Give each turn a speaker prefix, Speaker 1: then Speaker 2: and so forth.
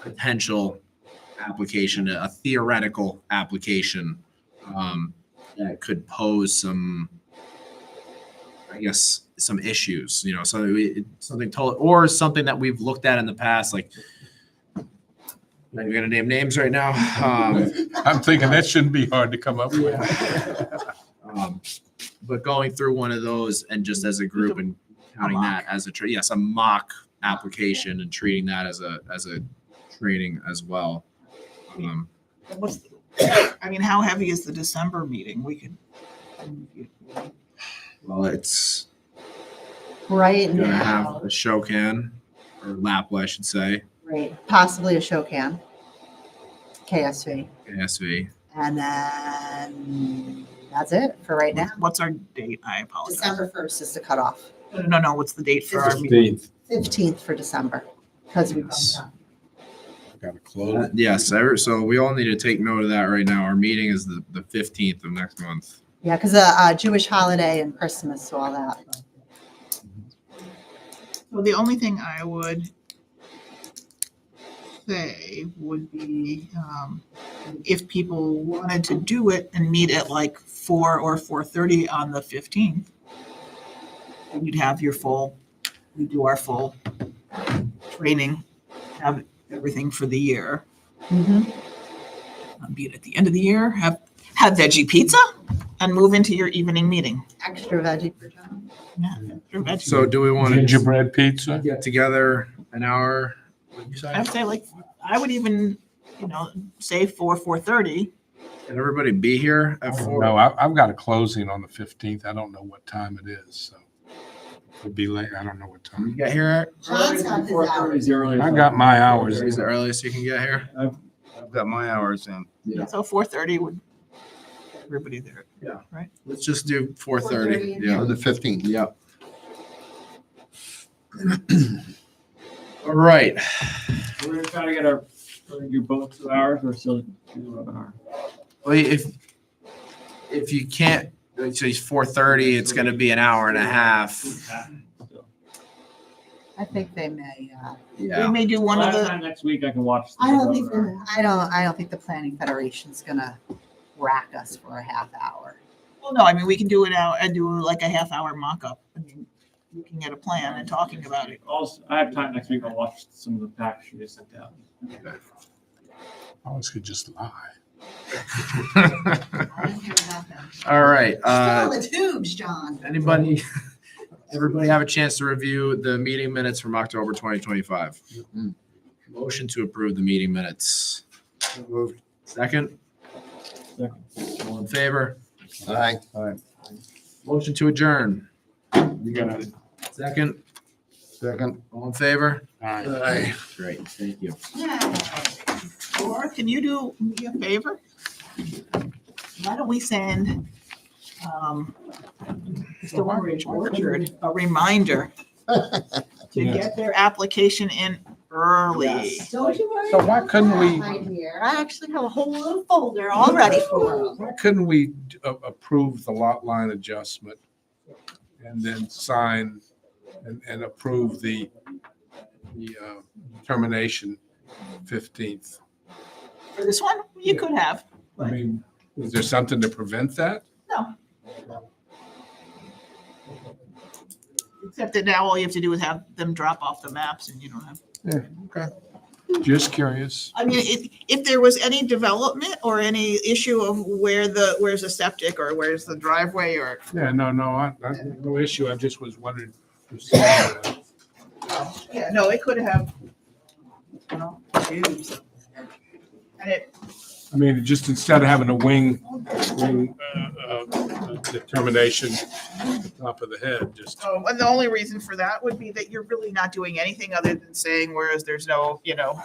Speaker 1: potential application, a theoretical application um, that could pose some, I guess, some issues. You know, so it, something told or something that we've looked at in the past, like. I'm not even gonna name names right now. Um,
Speaker 2: I'm thinking that shouldn't be hard to come up with.
Speaker 1: Um, But going through one of those and just as a group and counting that as a, tra- yes, a mock application and treating that as a, as a training as well. Um,
Speaker 3: What's, I mean, how heavy is the December meeting? We could.
Speaker 1: Well, it's
Speaker 4: Right
Speaker 1: gonna have
Speaker 4: now,
Speaker 1: a show can or Lapla, I should say,
Speaker 4: right, possibly a show can. KSV.
Speaker 1: ASV.
Speaker 4: And then that's it for right now.
Speaker 3: What's our date? I apologize.
Speaker 4: December first is the cutoff.
Speaker 3: No, no, no, what's the date for our meeting?
Speaker 2: Fifteenth,
Speaker 4: Fifteenth for December. Because we
Speaker 1: Yes.
Speaker 2: gotta close.
Speaker 1: Uh, Yes, I- so we all need to take note of that right now. Our meeting is the, the fifteenth of next month.
Speaker 4: yeah, because uh, uh, Jewish holiday and Christmas, so all that.
Speaker 3: So the only thing I would say would be, um, if people wanted to do it and meet at like four or four thirty on the fifteenth. And you'd have your full, we do our full training, have everything for the year.
Speaker 4: Mhm.
Speaker 3: um, be it at the end of the year, have, have veggie pizza and move into your evening meeting.
Speaker 4: Extra veggie for John.
Speaker 3: Yeah, your veggie.
Speaker 1: So do we want to
Speaker 2: Gingerbread pizza?
Speaker 1: get together an hour? what'd you say?
Speaker 3: I would say like, I would even, you know, say four, four thirty.
Speaker 1: Can everybody be here at four?
Speaker 2: No, I, I've got a closing on the fifteenth. I don't know what time it is, so. It'll be late. I don't know what
Speaker 1: Can you
Speaker 2: time.
Speaker 1: get here at
Speaker 4: John's got his hours.
Speaker 2: I got my hours.
Speaker 1: Is it earliest you can get here?
Speaker 5: I've got my hours in.
Speaker 1: Yeah.
Speaker 3: So four thirty would, get everybody there.
Speaker 1: Let's just do four thirty.
Speaker 4: 4:30.
Speaker 1: Yeah.
Speaker 5: the fifteenth.
Speaker 1: Yep. All right.
Speaker 6: We're gonna try to get our, we're gonna do both two hours or still do the webinar.
Speaker 1: Well, if if you can't, so it's four thirty. It's going to be an hour and a half.
Speaker 4: I think they may. Uh,
Speaker 3: We
Speaker 1: Yeah.
Speaker 3: may do one
Speaker 6: Well,
Speaker 3: of
Speaker 6: that's
Speaker 3: the,
Speaker 6: fine. Next week I can watch. the
Speaker 4: I don't think.
Speaker 6: webinar.
Speaker 4: the- I don't. I don't think the Planning Federation's gonna rack us for a half hour.
Speaker 3: well, no, I mean, we can do it out and do like a half hour mock-up. I mean, Looking at a plan and talking about it.
Speaker 6: Also, I have time next week. I'll watch some of the packs you just sent out.
Speaker 2: I always could just lie.
Speaker 4: I don't care about them.
Speaker 1: All right. Uh,
Speaker 4: Still in the tubes, John.
Speaker 1: anybody? Everybody have a chance to review the meeting minutes from October twenty twenty five. Motion to approve the meeting minutes. Second, all in favor?
Speaker 5: Aye.
Speaker 1: Motion to adjourn.
Speaker 2: You got it.
Speaker 1: Second,
Speaker 5: Second.
Speaker 1: all in favor?
Speaker 2: Aye.
Speaker 1: Great, thank you.
Speaker 3: Or can you do me a favor? Why don't we send, um, Mr. Orange Orchard a reminder to get their application in early.
Speaker 4: Don't you worry.
Speaker 2: So why
Speaker 4: about
Speaker 2: couldn't we-
Speaker 4: that, my dear. I actually have a whole little folder all ready for 'em.
Speaker 2: Why couldn't we a- approve the lot line adjustment and then sign and, and approve the, the uh, termination fifteenth?
Speaker 3: For this one, you could have.
Speaker 2: I mean, is there something to prevent that?
Speaker 3: Except that now all you have to do is have them drop off the maps and you don't have.
Speaker 2: Just curious.
Speaker 3: I mean, if, if there was any development or any issue of where the, where's the septic or where's the driveway or
Speaker 2: Yeah, no, no, I, I, no issue. I just was wondering. if something, uh,
Speaker 3: Yeah, no, it could have. well, used. And it,
Speaker 2: I mean, just instead of having a wing, wing uh, uh, determination at the top of the head, just.
Speaker 3: oh, and the only reason for that would be that you're really not doing anything other than saying, whereas there's no, you know,